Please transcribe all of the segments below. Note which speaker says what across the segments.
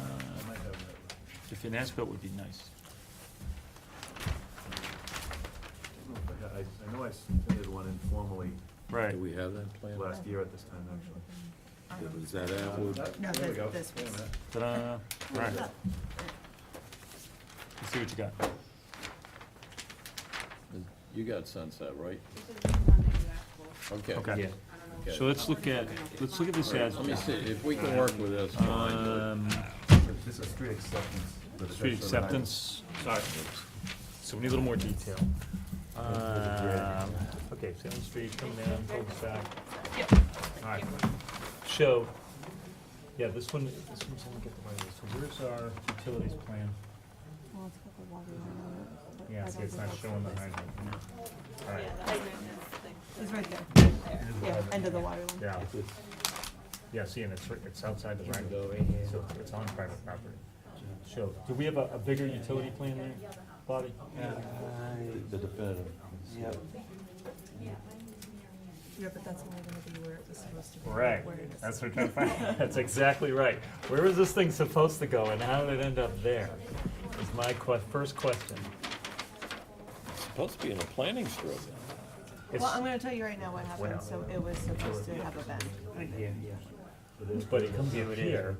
Speaker 1: Uh, The finance bill would be nice.
Speaker 2: I I know I submitted one informally
Speaker 1: Right.
Speaker 3: Do we have that plan?
Speaker 2: last year at this time, actually.
Speaker 3: Is that Atwood?
Speaker 2: That-
Speaker 4: No,
Speaker 2: there we
Speaker 4: that-
Speaker 2: go.
Speaker 4: this
Speaker 2: Wait a
Speaker 4: was-
Speaker 2: minute.
Speaker 1: Ta-da. Right.
Speaker 4: Look,
Speaker 1: Let's see what you got.
Speaker 3: You got Sunset, right? Okay.
Speaker 1: Okay.
Speaker 3: Okay.
Speaker 1: So let's look at, let's look at this as,
Speaker 3: Let me see, if we can work with this, fine. but-
Speaker 1: um,
Speaker 2: This is street acceptance. but
Speaker 1: street
Speaker 2: it's actually-
Speaker 1: acceptance. Sorry. So we need a little more detail. Um, okay, Salem Street, come down, cul back. All right. So, yeah, this one, this one's, let me get the right one. So where's our utilities plan?
Speaker 4: Well, it's got the water line on it, but
Speaker 1: Yeah,
Speaker 4: I
Speaker 1: see,
Speaker 4: don't
Speaker 1: it's
Speaker 4: think
Speaker 1: not
Speaker 4: that's
Speaker 1: showing
Speaker 4: what
Speaker 1: the
Speaker 4: it is.
Speaker 1: hydrant. All right.
Speaker 4: It's right there, yeah, end of the water line.
Speaker 1: Yeah. Yeah, see, and it's, right- it's outside the right, so it's on private property. So, do we have a, a bigger utility plan there, Bobby?
Speaker 3: The definitive.
Speaker 4: Yeah, but that's only gonna be where it was supposed to be. not
Speaker 1: Right,
Speaker 4: where it is.
Speaker 1: that's what I'm trying to find, that's exactly right. Where was this thing supposed to go and how did it end up there? Is my que- first question.
Speaker 3: Supposed to be in a planning strip.
Speaker 4: Well, I'm gonna tell you right now what happened,
Speaker 1: Well.
Speaker 4: so it was supposed to have a bend.
Speaker 1: It's- But it comes in here,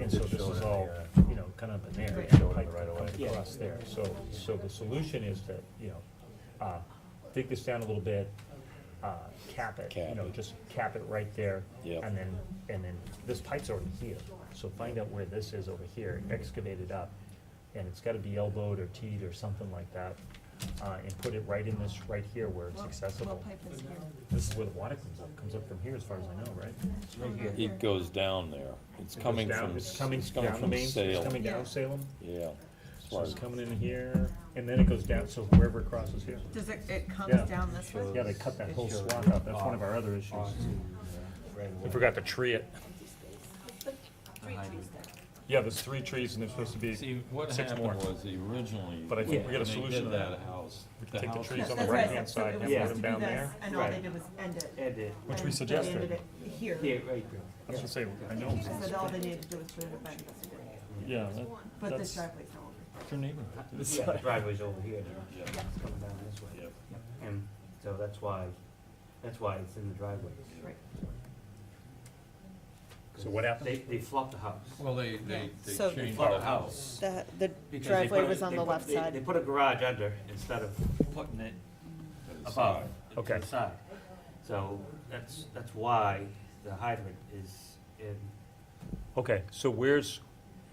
Speaker 1: and so this is all, you know, kind of an area, pipe that comes across there. So, so the solution is to, you know, uh, dig this down a little bit, uh, cap it, you
Speaker 3: Cap
Speaker 1: know,
Speaker 3: it.
Speaker 1: just cap it right there.
Speaker 3: Yep.
Speaker 1: And then, and then, this pipe's already here, so find out where this is over here, excavate it up, and it's gotta be elbowed or teed or something like that. Uh, and put it right in this, right here where it's
Speaker 4: What-
Speaker 1: accessible.
Speaker 4: What pipe is here?
Speaker 1: This is where the water comes up, comes up from here as far as I know, right?
Speaker 3: It goes down there. It's
Speaker 1: It goes
Speaker 3: coming
Speaker 1: down-
Speaker 3: from,
Speaker 1: It's
Speaker 3: it's
Speaker 1: coming
Speaker 3: coming
Speaker 1: down the
Speaker 3: from
Speaker 1: main, it's
Speaker 3: Salem.
Speaker 1: coming down
Speaker 4: Yeah.
Speaker 1: Salem,
Speaker 3: Yeah.
Speaker 1: so it's coming in here, and then it goes down, so wherever it crosses here.
Speaker 4: Does it, it
Speaker 1: Yeah.
Speaker 4: comes down this way?
Speaker 1: Yeah, they cut that whole swath up, that's one of our other issues. We forgot to tree it. Yeah, there's three trees and there's supposed to be,
Speaker 3: See, what
Speaker 1: Six
Speaker 3: happened
Speaker 1: more.
Speaker 3: was originally.
Speaker 1: But I think we got a
Speaker 3: when they
Speaker 1: solution to
Speaker 3: did
Speaker 1: that.
Speaker 3: house.
Speaker 1: could take the
Speaker 3: house
Speaker 1: trees
Speaker 4: That's
Speaker 3: was
Speaker 1: on the
Speaker 4: that's
Speaker 3: right.
Speaker 4: right,
Speaker 1: right-hand
Speaker 4: so it
Speaker 1: side,
Speaker 4: was
Speaker 1: and
Speaker 4: supposed
Speaker 1: put them
Speaker 4: to be
Speaker 1: down
Speaker 4: this,
Speaker 1: there.
Speaker 4: And all they
Speaker 1: Right.
Speaker 4: did was end it.
Speaker 1: which we
Speaker 4: And they ended
Speaker 1: suggested.
Speaker 4: it Here,
Speaker 1: That's what I say, I know,
Speaker 4: so that all they needed to do was put in a bend,
Speaker 1: yeah,
Speaker 4: but
Speaker 1: That's-
Speaker 4: this driveway's not over.
Speaker 1: that's your neighbor.
Speaker 5: Yeah, the driveway's over here now, it's coming down this way.
Speaker 3: Yep.
Speaker 5: And so that's why, that's why it's in the driveway.
Speaker 4: Right.
Speaker 1: So what happened?
Speaker 5: They, they flopped the house.
Speaker 3: Well, they, they, they
Speaker 4: So-
Speaker 3: changed the house.
Speaker 4: The, the
Speaker 5: Because they put a- they put- they- They put a garage under instead of putting it above, to
Speaker 1: Okay.
Speaker 5: the side. So that's, that's why the hydrant is in,
Speaker 1: Okay, so where's,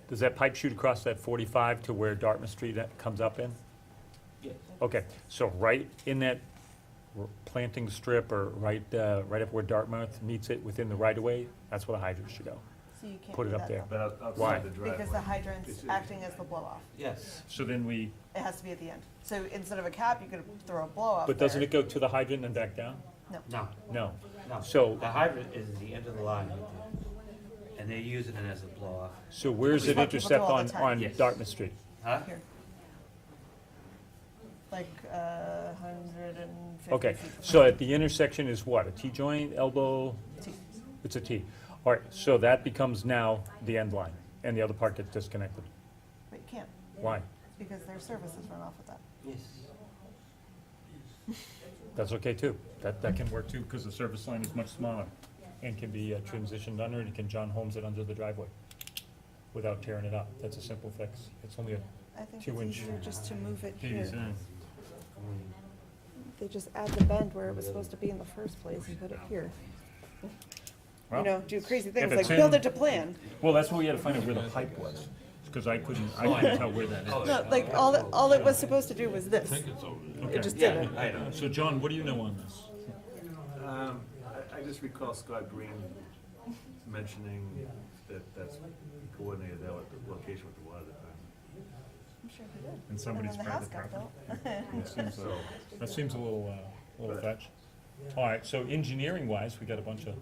Speaker 1: does that pipe shoot across that forty-five to where Dartmouth Street that comes up in?
Speaker 5: yeah,
Speaker 1: Okay, so right in that r- planting strip or right, uh, right up where Dartmouth meets it within the right of way, that's where the hydrant should go.
Speaker 4: So you can't
Speaker 1: Put it
Speaker 4: do
Speaker 1: up
Speaker 4: that
Speaker 1: there.
Speaker 2: But out-
Speaker 1: Why?
Speaker 2: outside the driveway.
Speaker 4: Because the hydrant's acting as the blow off.
Speaker 5: yes.
Speaker 1: So then we.
Speaker 4: It has to be at the end. So instead of a cap, you could throw a blow off.
Speaker 1: But doesn't it go to the hydrant and back down?
Speaker 5: No,
Speaker 1: No.
Speaker 5: no.
Speaker 1: So-
Speaker 5: The hydrant is the end of the line right there. And they're using it as a blow off.
Speaker 1: So where's it
Speaker 4: That's what people do
Speaker 1: intercept
Speaker 4: all the
Speaker 1: on,
Speaker 4: time.
Speaker 1: on
Speaker 5: Yes.
Speaker 1: Dartmouth Street?
Speaker 5: Huh?
Speaker 4: Here. Like a hundred and fifty.
Speaker 1: Okay,
Speaker 4: feet from
Speaker 1: so at the intersection is what, a T-joint, elbow?
Speaker 4: the T.
Speaker 1: It's a T. All right, so that becomes now the end line, and the other part gets disconnected.
Speaker 4: But you can't,
Speaker 1: Why?
Speaker 4: because their services run off with that.
Speaker 5: Yes.
Speaker 1: That's okay too. That, that can work too, because the service line is much smaller and can be uh, transitioned under, and can John Holmes it under the driveway without tearing it up. That's a simple fix. It's only a
Speaker 4: I think
Speaker 1: Two
Speaker 4: it's
Speaker 1: inch.
Speaker 4: easier just to move it here.
Speaker 1: design.
Speaker 4: They just add the bend where it was supposed to be in the first place and put it here. You
Speaker 1: Well,
Speaker 4: know, do crazy things
Speaker 1: it's
Speaker 4: like build
Speaker 1: in-
Speaker 4: it to plan.
Speaker 1: Well, that's why we had to find out where the pipe was, because I couldn't, I couldn't tell where that is.
Speaker 4: No, like all, it- all it was supposed to do was this. It just did it.
Speaker 5: I know.
Speaker 1: So John, what do you know on this?
Speaker 2: Um, I, I just recall Scott Green mentioning that that's coordinated that with the location with the water department.
Speaker 4: I'm sure he did.
Speaker 1: And
Speaker 4: And
Speaker 1: somebody's
Speaker 4: then the house
Speaker 1: private
Speaker 4: got
Speaker 1: property.
Speaker 4: built.
Speaker 1: That seems,
Speaker 2: So,
Speaker 1: that seems a little, uh, little fetch. All right, so engineering wise, we got a bunch of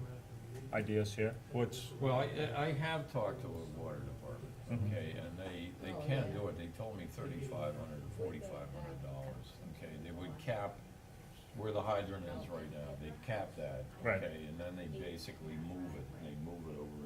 Speaker 1: ideas here. What's,
Speaker 3: Well, I, I have talked to the water department, okay, and they, they can do it, they told me thirty-five hundred, forty-five hundred dollars, okay? They would cap where the hydrant is right now, they cap that,
Speaker 1: Right.
Speaker 3: okay? And then they basically move it, they move it over